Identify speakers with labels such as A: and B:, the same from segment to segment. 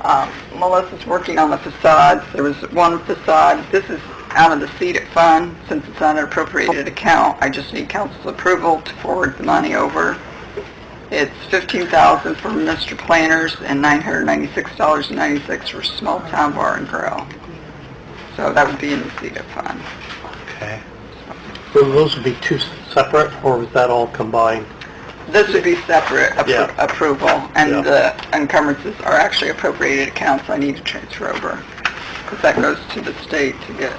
A: Uh, Melissa's working on the facades. There was one facade, this is out of the seeded fund, since it's not an appropriated account. I just need council's approval to forward the money over. It's fifteen thousand for Mr. Planners and nine hundred ninety-six dollars and ninety-six for Small Town Bar and Grill. So that would be in the seeded fund.
B: Okay. So those would be two separate, or was that all combined?
A: This would be separate appro-
B: Yeah.
A: approval, and
B: Yeah.
A: the encumbrances are actually appropriated accounts I need to transfer over, because that goes to the state to get,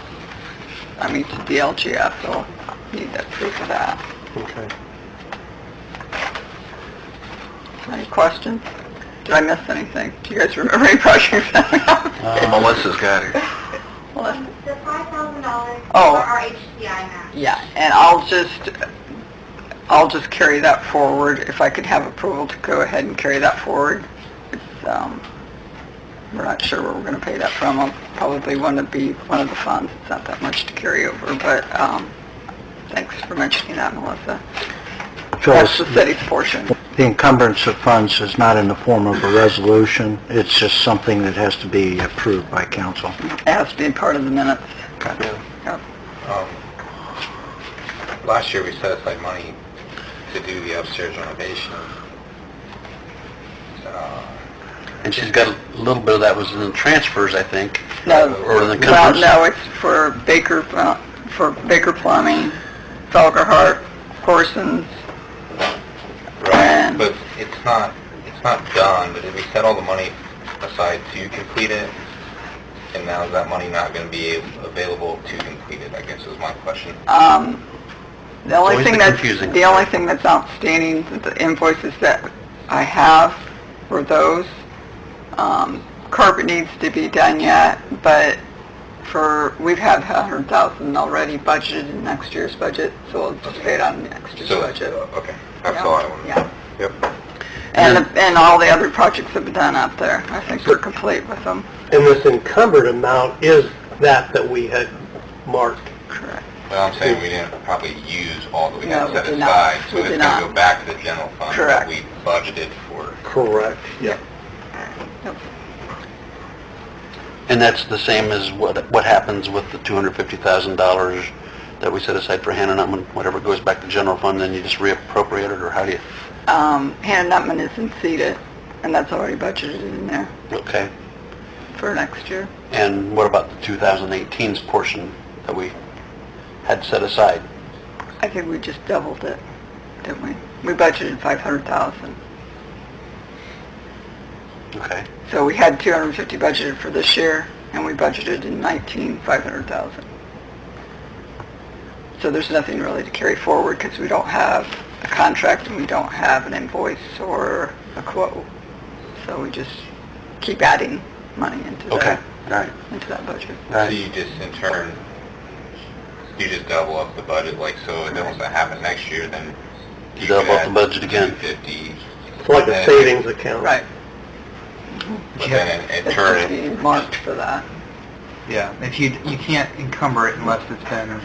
A: I mean, to DLGF, so I need that proof of that.
B: Okay.
A: Any questions? Did I miss anything? Do you guys remember any questions?
B: Uh, Melissa's got it.
A: Melissa?
C: The five thousand dollars for
A: Oh.
C: our HCI match.
A: Yeah, and I'll just, I'll just carry that forward, if I could have approval to go ahead and carry that forward. It's, um, we're not sure where we're gonna pay that from, I'll probably wanna be one of the funds, it's not that much to carry over, but, um, thanks for mentioning that, Melissa. That's
B: Uh,
D: Phyllis,
A: the city's portion.
D: the encumbrance of funds is not in the form of a resolution. It's just something that has to be approved by council.
A: It has to be part of the minutes. Yep.
E: Last year, we set aside money to do the upstairs renovation.
B: And she's got a little bit of that was in the transfers, I think.
A: No,
B: Or the
A: well,
B: encumbrances.
A: no, it's for Baker, uh, for Baker Plumbing, Felgerhart, Horson's,
E: Right, but it's not, it's not done, but if we set all the money aside to complete it, and now is that money not going to be available to complete it, I guess is my question.
A: Um, the only
B: always
A: thing
B: the
A: that's,
B: confusing
A: the only thing that's outstanding, the invoices that I have for those. Um, carpet needs to be done yet, but for, we've had a hundred thousand already budgeted in next year's budget, so we'll just pay it on next year's
E: So,
A: budget.
E: okay, that's all I want
A: Yeah.
E: to know. Yep.
A: And, the- and all the other projects have been done out there. I think we're complete with them.
B: And this encumbered amount is that that we had marked.
A: Correct.
E: Well, I'm saying we didn't probably use all that we had
A: No,
E: set
A: we did not.
E: aside, so
A: We
E: it's
A: did
E: going to
A: not.
E: go back to the general fund
A: Correct.
E: that we budgeted for.
B: Correct. Yeah.
A: Yep.
B: And that's the same as what, what happens with the $250,000 that we set aside for Hannah Nutman, whatever goes back to general fund, then you just reappropriate it, or how do you,
A: Um, Hannah Nutman isn't seated, and that's already budgeted in there
B: okay?
A: for next year.
B: And what about the 2018's portion that we had set aside?
A: I think we just doubled it, didn't we? We budgeted 500,000.
B: Okay.
A: So we had 250 budgeted for this year, and we budgeted in 19, 500,000. So there's nothing really to carry forward because we don't have a contract and we don't have an invoice or a quote. So we just keep adding money into
B: Okay,
A: that,
B: all right,
A: into that budget.
B: all
E: So
B: right.
E: you just in turn, you just double up the budget, like, so if that was to happen next year, then you could
B: Double up the
E: add
B: budget again.
E: 250,
B: It's
E: like a savings
B: account.
A: Right.
E: but then in- in
A: It's
E: turn,
A: to be marked for that.
F: Yeah, if you, you can't encumber it unless it's been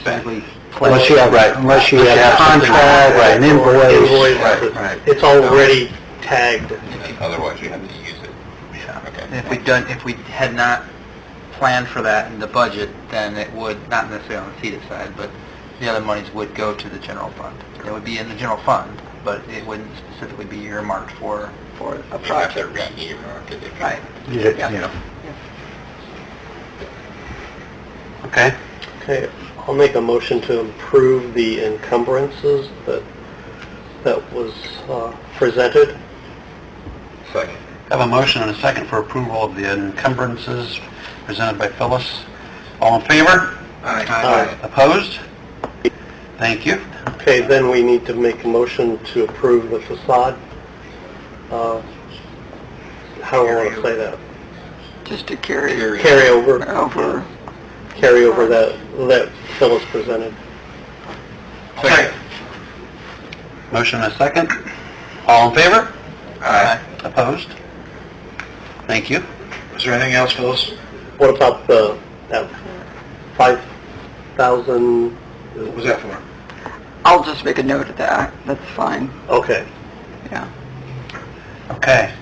F: specifically
D: Unless you have, unless you have a contract, an invoice.
E: Right.
F: Right.
D: It's already tagged.
E: And Otherwise, you have to use it.
F: And
E: Okay.
F: If we'd done, if we had not planned for that in the budget, then it would, not necessarily on the CETA side, but the other monies would go to the general fund. It would be in the general fund, but it wouldn't specifically be earmarked for,
A: for a
E: You have to
A: project.
E: re-earmark it. if you-
A: Right.
D: Yeah, yeah.
B: Okay,
G: Okay, I'll make a motion to approve the encumbrances that, that was uh, presented.
E: Second.
B: have a motion and a second for approval of the encumbrances presented by Phyllis. All in favor?
G: Aye.
B: Opposed? Thank you.
G: Okay, then we need to make a motion to approve the facade. uh, How do I want to say that?
A: Just to carry
G: Carry over,
A: over.
G: carry over that, that Phyllis presented.
B: Second. Motion and a second. All in favor?
E: Aye.
B: Opposed? Thank you.
E: Is there anything else, Phyllis?
G: What about the, that 5,000,
E: What was that for?
A: I'll just make a note of that. That's fine.
G: okay.
A: Yeah.
B: Okay.